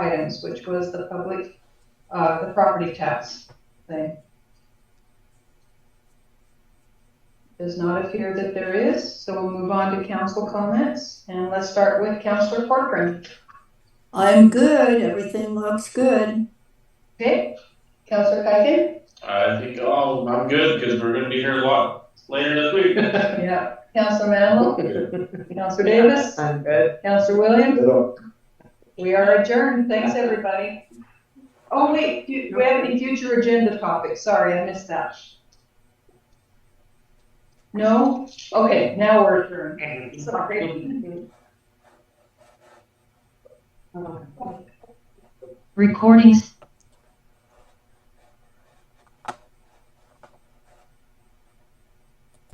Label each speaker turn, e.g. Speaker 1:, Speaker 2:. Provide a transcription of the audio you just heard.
Speaker 1: things, which was the public, uh, the property tax thing. Does not appear that there is, so we'll move on to council comments, and let's start with Councilor Corcoran.
Speaker 2: I'm good. Everything looks good.
Speaker 1: Okay, Councilor Kaiden?
Speaker 3: I think, oh, I'm good, because we're gonna be here a lot later this week.
Speaker 1: Yeah. Councilor Manilow? Councilor Davis?
Speaker 4: I'm good.
Speaker 1: Councilor Williams?
Speaker 5: They don't-
Speaker 1: We are adjourned. Thanks, everybody. Oh, wait, do we have any future agenda topics? Sorry, I missed that. No? Okay, now we're adjourned. Sorry.
Speaker 4: Oh,
Speaker 6: Recordings